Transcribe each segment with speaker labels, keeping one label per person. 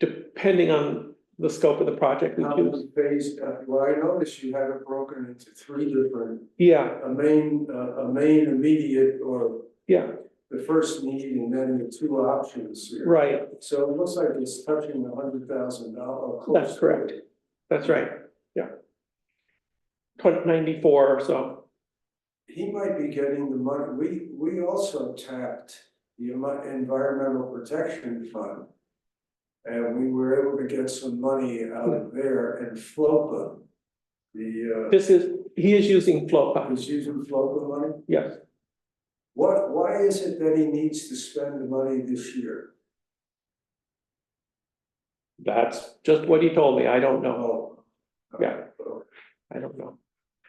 Speaker 1: depending on the scope of the project we
Speaker 2: How
Speaker 1: choose.
Speaker 2: was phase, uh, well, I noticed you have it broken into three different,
Speaker 1: Yeah,
Speaker 2: a main, uh, a main immediate or
Speaker 1: yeah,
Speaker 2: the first need and then the two options here.
Speaker 1: right,
Speaker 2: So it looks like it's touching a hundred thousand dollars.
Speaker 1: that's correct. That's right, yeah. Twenty ninety-four or so,
Speaker 2: He might be getting the money, we, we also tapped the Envi- Environmental Protection Fund. And we were able to get some money out of
Speaker 1: Hmm.
Speaker 2: there and FLOPA. The,
Speaker 1: this is, he is using
Speaker 2: uh,
Speaker 1: FLOPA,
Speaker 2: he's using FLOPA money,
Speaker 1: yes.
Speaker 2: what, why is it that he needs to spend the money this year?
Speaker 1: That's just what he told me, I don't know,
Speaker 2: Oh.
Speaker 1: Yeah. I don't know.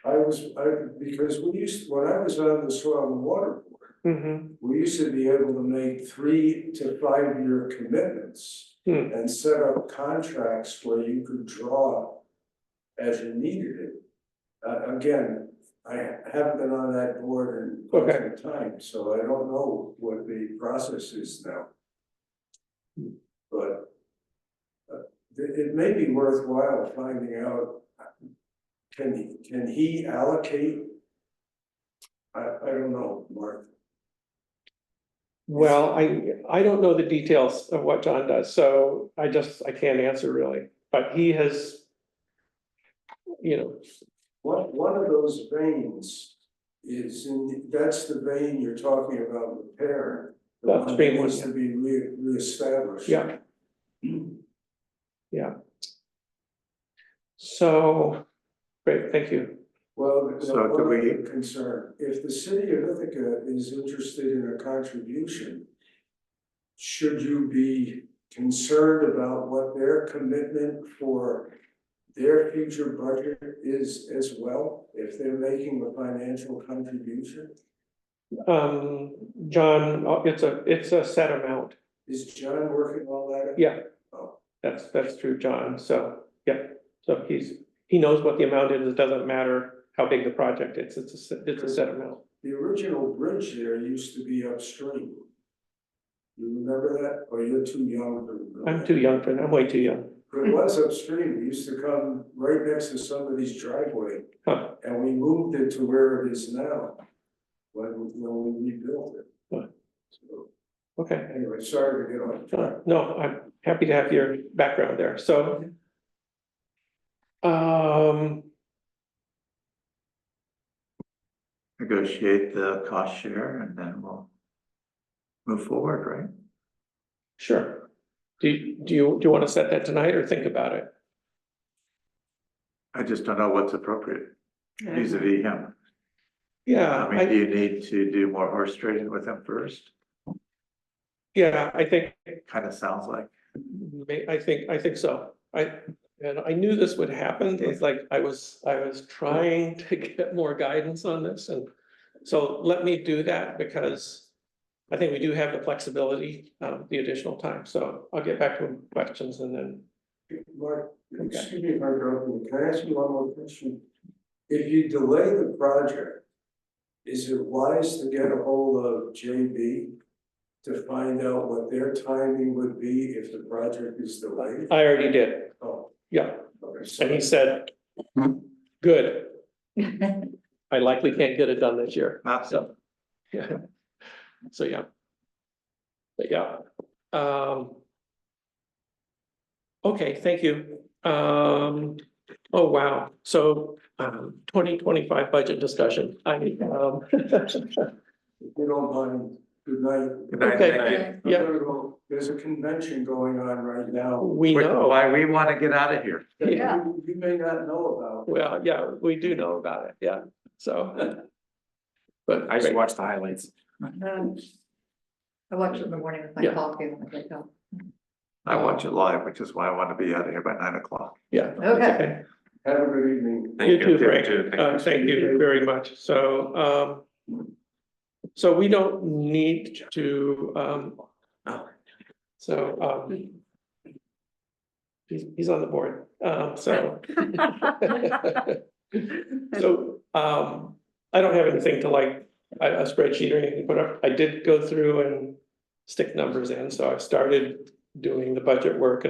Speaker 2: I was, I, because we used, when I was on the soil and water board,
Speaker 1: Mm-hmm,
Speaker 2: we used to be able to make three to five year commitments.
Speaker 1: Hmm.
Speaker 2: And set up contracts where you could draw as you needed it. Uh, again, I haven't been on that board in quite
Speaker 1: Okay.
Speaker 2: some time, so I don't know what the process is now. But. uh, It, it may be worthwhile finding out. Can he, can he allocate? I, I don't know, Mark.
Speaker 1: well, I, I don't know the details of what John does, so I just, I can't answer really, but he has. You know,
Speaker 2: One, one of those veins is in, that's the vein you're talking about repairing. The
Speaker 1: That's
Speaker 2: one that
Speaker 1: big one,
Speaker 2: needs to be re- reestablished.
Speaker 1: yeah. So, great, thank you.
Speaker 2: Well, the-
Speaker 3: So
Speaker 2: the
Speaker 3: do
Speaker 2: one
Speaker 3: we-
Speaker 2: other concern, if the city of Ithaca is interested in a contribution, should you be concerned about what their commitment for their future budget is as well, if they're making a financial contribution?
Speaker 1: Um, John, uh, it's a, it's a set amount.
Speaker 2: Is John working all that? out?
Speaker 1: Yeah.
Speaker 2: Oh.
Speaker 1: That's, that's true, John. So, yeah, so he's, he knows what the amount is. It doesn't matter how big the project is. It's a, se- it's a set amount.
Speaker 2: The original bridge there used to be upstream. You remember that, or you're too young to remember?
Speaker 1: I'm
Speaker 2: that.
Speaker 1: too young for that. I'm way too young.
Speaker 2: But It was upstream, it used to come right next to somebody's driveway,
Speaker 1: Huh.
Speaker 2: and we moved it to where it is now. When, when we rebuilt
Speaker 1: Huh.
Speaker 2: it. So,
Speaker 1: Okay.
Speaker 2: anyway, sorry to get off
Speaker 1: Uh,
Speaker 2: track.
Speaker 1: No, I'm happy to have your background there. So. Um,
Speaker 3: negotiate the cost share and then we'll move forward, right?
Speaker 1: sure. Do, you- do you, do you want to set that tonight or think about it?
Speaker 3: I just don't know what's appropriate vis a vis him.
Speaker 1: Yeah.
Speaker 3: I
Speaker 1: Uh, I-
Speaker 3: mean, do you need to do more horse trading with him first?
Speaker 1: Yeah, I think,
Speaker 3: Kind of sounds like,
Speaker 1: may- I think, I think so. I, and I knew this would happen. It's like I was, I was trying to get more guidance on this and so let me do that because I think we do have the flexibility, um, the additional time. So I'll get back to questions and then,
Speaker 2: Mark,
Speaker 1: Okay.
Speaker 2: excuse me if I'm interrupting, you. can I ask you one more question? If you delay the project, is it wise to get a hold of JB to find out what their timing would be if the project is delayed?
Speaker 1: I already did.
Speaker 2: Oh,
Speaker 1: Yeah.
Speaker 2: okay,
Speaker 1: And
Speaker 2: so,
Speaker 1: he said, good. I likely can't get it done this year.
Speaker 3: not so,
Speaker 1: So, yeah. So, yeah. But yeah, um. Okay, thank you. Um, oh, wow. So, um, twenty twenty-five budget discussion. I, um,
Speaker 2: if you don't mind, good night.
Speaker 3: Good night,
Speaker 1: Okay.
Speaker 3: thank you.
Speaker 2: I'm
Speaker 1: Yeah.
Speaker 2: gonna go. There's a convention going on right now.
Speaker 1: we
Speaker 3: Which-
Speaker 1: know,
Speaker 3: Why we want to get out of here.
Speaker 2: that
Speaker 1: Yeah.
Speaker 2: you- You may not know about.
Speaker 1: well, yeah, we do know about it. Yeah, so. But.
Speaker 4: I just
Speaker 1: great.
Speaker 4: watched the highlights.
Speaker 5: Um, I watched it in the morning with my
Speaker 1: Yeah.
Speaker 5: coffee when I wake up.
Speaker 3: I watch it live, which is why I want to be out of here by nine o'clock.
Speaker 1: Yeah.
Speaker 5: Okay.
Speaker 2: Have a good evening.
Speaker 1: You too, Frank.
Speaker 4: You too. Thank
Speaker 1: Uh, thank you very much. So, um. So we don't need to, um. So, um. He's, he's on the board, um, so.
Speaker 5: oh.
Speaker 1: So, um, I don't have anything to like, a a spreadsheet or anything, but I- I did go through and stick numbers in, so I started doing the budget work